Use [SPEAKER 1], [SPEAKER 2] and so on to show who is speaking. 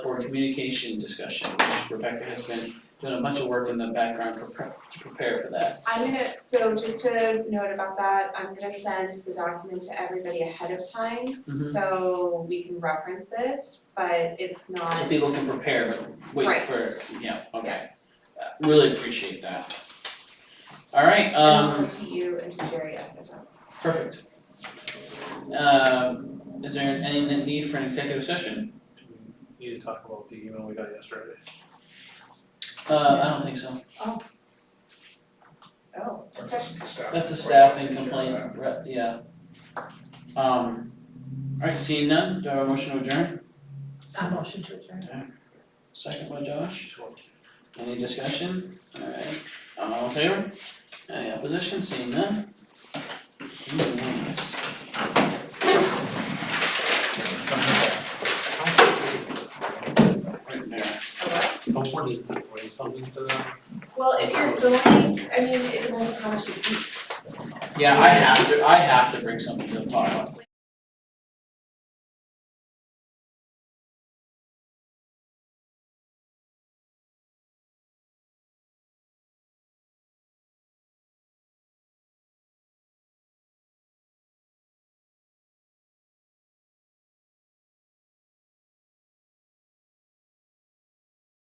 [SPEAKER 1] for communication discussion, which Rebecca has been doing a bunch of work in the background to prep, to prepare for that.
[SPEAKER 2] I'm gonna, so just to note about that, I'm gonna send the document to everybody ahead of time,
[SPEAKER 1] Mhm.
[SPEAKER 2] so we can reference it, but it's not,
[SPEAKER 1] So people can prepare, but wait
[SPEAKER 2] Right.
[SPEAKER 1] for, yeah, okay,
[SPEAKER 2] yes.
[SPEAKER 1] Uh, really appreciate that. All right, um.
[SPEAKER 2] And also to you and to Jerry ahead of time.
[SPEAKER 1] Perfect. Um, is there any need for an executive session?
[SPEAKER 3] Do we Need to talk about the email we got yesterday.
[SPEAKER 1] Uh, I don't think so.
[SPEAKER 2] Oh,
[SPEAKER 4] That's a staff.
[SPEAKER 1] That's a staffing complaint, re- yeah. Um, alright, seeing none, do I have a motion to adjourn?
[SPEAKER 5] I motion to adjourn.
[SPEAKER 1] Second by Josh. Any discussion? Alright, all in favor? Any opposition? Seeing none? Unanimous. Right there.
[SPEAKER 3] Don't worry, bring something to them.
[SPEAKER 2] well, if
[SPEAKER 1] Oh.
[SPEAKER 2] you're going, I mean, it depends on how much you eat.
[SPEAKER 1] Yeah, I have to, I have to bring something to the potluck.